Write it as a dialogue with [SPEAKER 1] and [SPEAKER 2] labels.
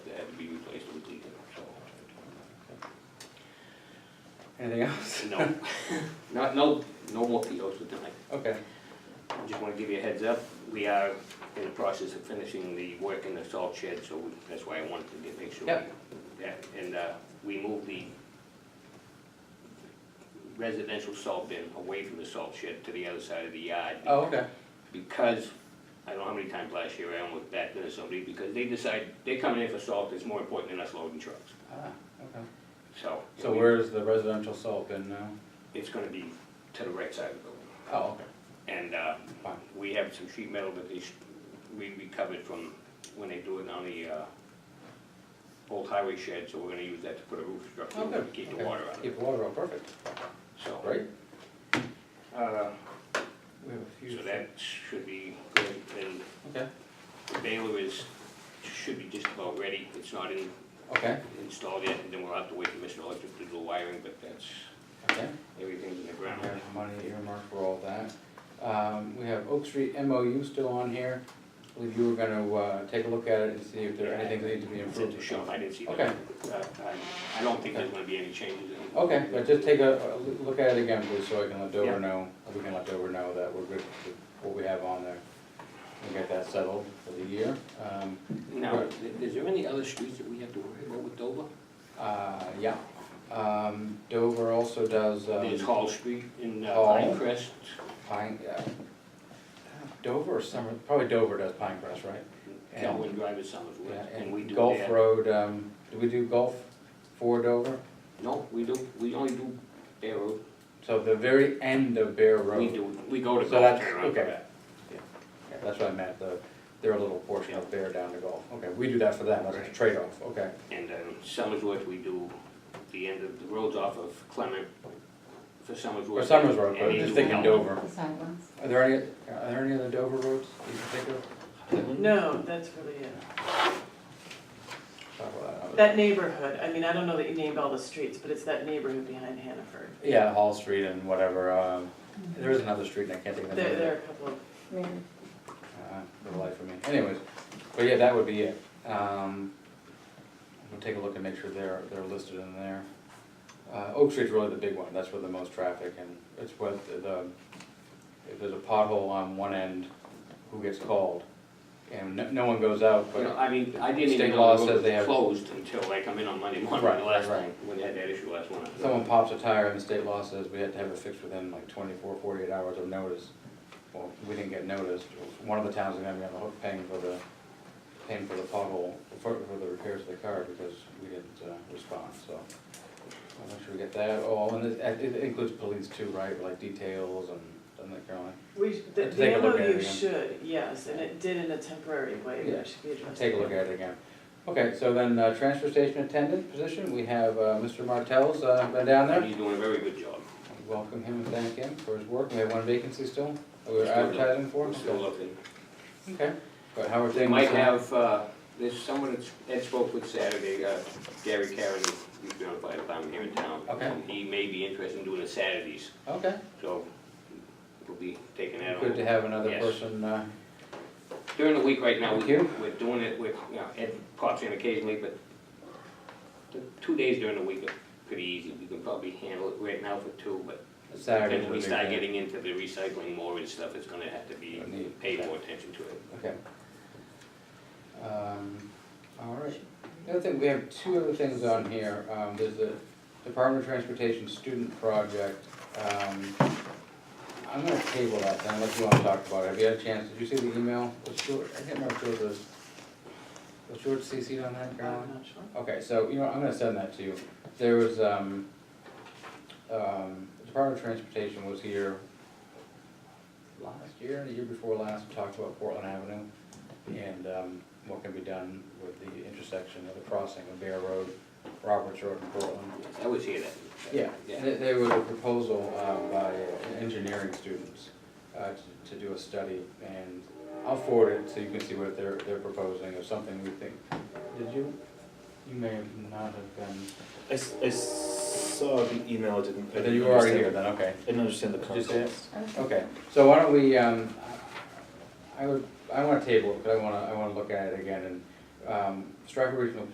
[SPEAKER 1] Anything else?
[SPEAKER 2] No, not, no, no more POs for tonight.
[SPEAKER 1] Okay,
[SPEAKER 2] I Just wanna give you a heads up, we are in the process of finishing the work in the salt shed, so we- that's why I wanted to get, make sure. we-
[SPEAKER 1] Yep.
[SPEAKER 2] Yeah, and, uh, we moved the residential salt bin away from the salt shed to the other side of the yard.
[SPEAKER 1] oh, okay,
[SPEAKER 2] Because, I don't know how many times last year I almost backed into uh, somebody, because they decide, they come in for salt, it's more important than us loading trucks,
[SPEAKER 1] ah, okay.
[SPEAKER 2] so.
[SPEAKER 1] So where's the residential salt bin now?
[SPEAKER 2] It's gonna be to the right side of the building,
[SPEAKER 1] Oh, okay,
[SPEAKER 2] and, uh,
[SPEAKER 1] fine,
[SPEAKER 2] We have some sheet metal that they, sh- we recovered from when they do it on the, uh, old highway shed, so we're gonna use that to put a roof structure,
[SPEAKER 1] oh,
[SPEAKER 2] to
[SPEAKER 1] good.
[SPEAKER 2] keep the
[SPEAKER 1] Okay.
[SPEAKER 2] water out of it,
[SPEAKER 1] Keep the water out, perfect,
[SPEAKER 2] so.
[SPEAKER 1] great.
[SPEAKER 2] Uh,
[SPEAKER 1] We have a few.
[SPEAKER 2] so that should be good, and
[SPEAKER 1] Okay,
[SPEAKER 2] the baler is, should be just about ready, it's not in,
[SPEAKER 1] okay,
[SPEAKER 2] installed yet, and then we'll have to wait for Mr. Electric to do the wiring, but that's,
[SPEAKER 1] okay.
[SPEAKER 2] everything's in the
[SPEAKER 1] We
[SPEAKER 2] ground.
[SPEAKER 1] have money earmarked for all that. Um, we have Oak Street MOU still on here. I believe you were gonna, uh, take a look at it and see if there are anything that need to be
[SPEAKER 2] It's at the
[SPEAKER 1] improved.
[SPEAKER 2] shop, I didn't see that.
[SPEAKER 1] Okay.
[SPEAKER 2] Uh, I, I don't think there's gonna be any changes in it.
[SPEAKER 1] Okay, but just take a, a loo- look at it again, please, so I can let
[SPEAKER 2] Yeah.
[SPEAKER 1] Dover know, or we can let Dover know that we're good with what we have on there. We'll get that settled for the year. Um,
[SPEAKER 2] Now, is there any other streets that we have to worry about with Dover?
[SPEAKER 1] uh, yeah. Um, Dover also does,
[SPEAKER 2] There's
[SPEAKER 1] um,
[SPEAKER 2] Hall Street in uh,
[SPEAKER 1] Hall.
[SPEAKER 2] Pinecrest.
[SPEAKER 1] Pine, yeah. Dover or Summer, probably Dover does Pine Crest, right? And-
[SPEAKER 2] Calvin Drive is Somersworth,
[SPEAKER 1] Yeah,
[SPEAKER 2] and we do
[SPEAKER 1] Gulf
[SPEAKER 2] that.
[SPEAKER 1] Road, um, do we do Gulf for Dover?
[SPEAKER 2] No, we do, we only do Bear Road.
[SPEAKER 1] So the very end of Bear
[SPEAKER 2] We
[SPEAKER 1] Road.
[SPEAKER 2] do, we go to
[SPEAKER 1] So
[SPEAKER 2] Gulf
[SPEAKER 1] that's-
[SPEAKER 2] Bear Road.
[SPEAKER 1] okay. Yeah, That's what I meant, the, their little portion of Bear down to Gulf. Okay, we do that for them, that's a
[SPEAKER 2] Right.
[SPEAKER 1] trade-off, okay.
[SPEAKER 2] And um, Somersworth, we do the end of, the roads off of Clement for Somersworth.
[SPEAKER 1] Or Summers Road,
[SPEAKER 2] And
[SPEAKER 1] but I'm
[SPEAKER 2] into
[SPEAKER 1] just thinking
[SPEAKER 2] Elm.
[SPEAKER 1] Dover.
[SPEAKER 3] The side ones.
[SPEAKER 1] Are there any, are there any other Dover roads you can think of?
[SPEAKER 4] No, that's really it.
[SPEAKER 1] Talk about that.
[SPEAKER 4] That neighborhood, I mean, I don't know that you named all the streets, but it's that neighborhood behind Hannaford.
[SPEAKER 1] Yeah, Hall Street and whatever, um, there is another street and I can't think of the name of
[SPEAKER 4] There,
[SPEAKER 1] it.
[SPEAKER 4] there are a couple of,
[SPEAKER 1] uh, for the life of me. Anyways, but yeah, that would be it. Um, we'll take a look and make sure they're, they're listed in there. Uh, Oak Street's really the big one, that's where the most traffic and it's where the- the, if there's a pothole on one end, who gets called? And no, no one goes out,
[SPEAKER 2] You know,
[SPEAKER 1] but,
[SPEAKER 2] I mean, I didn't
[SPEAKER 1] State
[SPEAKER 2] even
[SPEAKER 1] law
[SPEAKER 2] know the
[SPEAKER 1] says
[SPEAKER 2] road
[SPEAKER 1] they have-
[SPEAKER 2] was closed until I come in on Monday morning,
[SPEAKER 1] Right,
[SPEAKER 2] the last
[SPEAKER 1] right,
[SPEAKER 2] time,
[SPEAKER 1] right.
[SPEAKER 2] when they had that issue last winter.
[SPEAKER 1] someone pops a tire and the state law says we had to have it fixed within like 24, 48 hours of notice. Well, we didn't get noticed, one of the towns is gonna be on the hook paying for the, paying for the pothole, for, for the repairs to the car because we didn't, uh, respond, so. I'll make sure we get that all, and it, it includes police too, right, like details and, doesn't it, Caroline?
[SPEAKER 4] we, the-
[SPEAKER 1] Take a
[SPEAKER 4] the
[SPEAKER 1] look at it
[SPEAKER 4] MOU
[SPEAKER 1] again.
[SPEAKER 4] should, yes, and it did in a temporary way, but
[SPEAKER 1] Yeah.
[SPEAKER 4] it should be addressed.
[SPEAKER 1] Take a look at it again. Okay, so then, uh, transfer station attendant position, we have, uh, Mr. Martell's, uh, been down there.
[SPEAKER 2] He's doing a very good job.
[SPEAKER 1] Welcome him and thank him for his work. We have one vacancy still, that we're advertising for.
[SPEAKER 2] We're still looking.
[SPEAKER 1] Okay, but how are things?
[SPEAKER 2] They might
[SPEAKER 1] uh,
[SPEAKER 2] have, uh, there's someone that's, that spoke with Saturday, uh, Gary Carey, he's been on fire department here in town.
[SPEAKER 1] Okay.
[SPEAKER 2] And He may be interested in doing the Saturdays,
[SPEAKER 1] Okay,
[SPEAKER 2] so we'll be taking that
[SPEAKER 1] good to
[SPEAKER 2] on.
[SPEAKER 1] have another
[SPEAKER 2] Yes.
[SPEAKER 1] person, uh,
[SPEAKER 2] During the week right now,
[SPEAKER 1] Thank
[SPEAKER 2] we-
[SPEAKER 1] you.
[SPEAKER 2] we're doing it with, you know, Ed pops in occasionally, but the two days during the week are pretty easy. We can probably handle it right now for two, but
[SPEAKER 1] Saturday.
[SPEAKER 2] then we start getting into the recycling more and stuff, it's gonna have to be,
[SPEAKER 1] Need.
[SPEAKER 2] pay more attention to it.
[SPEAKER 1] Okay. Um, all right. The other thing, we have two other things on here. Um, there's the Department of Transportation Student Project. Um, I'm gonna table that then, unless you wanna talk about it. Have you had a chance? Did you see the email? Was George, I can't remember if George was, was George CC'd on that,
[SPEAKER 4] I'm
[SPEAKER 1] Caroline?
[SPEAKER 4] not sure.
[SPEAKER 1] Okay, so, you know, I'm gonna send that to you. There was, um, um, the Department of Transportation was here last year, the year before last, to talk about Portland Avenue and, um, what can be done with the intersection of the crossing of Bear Road, Roberts Road and Portland.
[SPEAKER 2] I was here that.
[SPEAKER 1] Yeah, there, there was a proposal, uh, by engineering students, uh, to, to do a study, and I'll forward it so you can see what they're, they're proposing, or something we think. Did you, you may have not have been,
[SPEAKER 5] I, s- I saw the email, I didn't. I
[SPEAKER 1] but then
[SPEAKER 5] didn't
[SPEAKER 1] you were already
[SPEAKER 5] understand-
[SPEAKER 1] here then, okay.
[SPEAKER 5] I didn't understand the
[SPEAKER 1] Did you
[SPEAKER 5] context.
[SPEAKER 1] say it? Okay, so why don't we, um, I would, I wanna table it, but I wanna, I wanna look at it again, and, um, Stratford Regional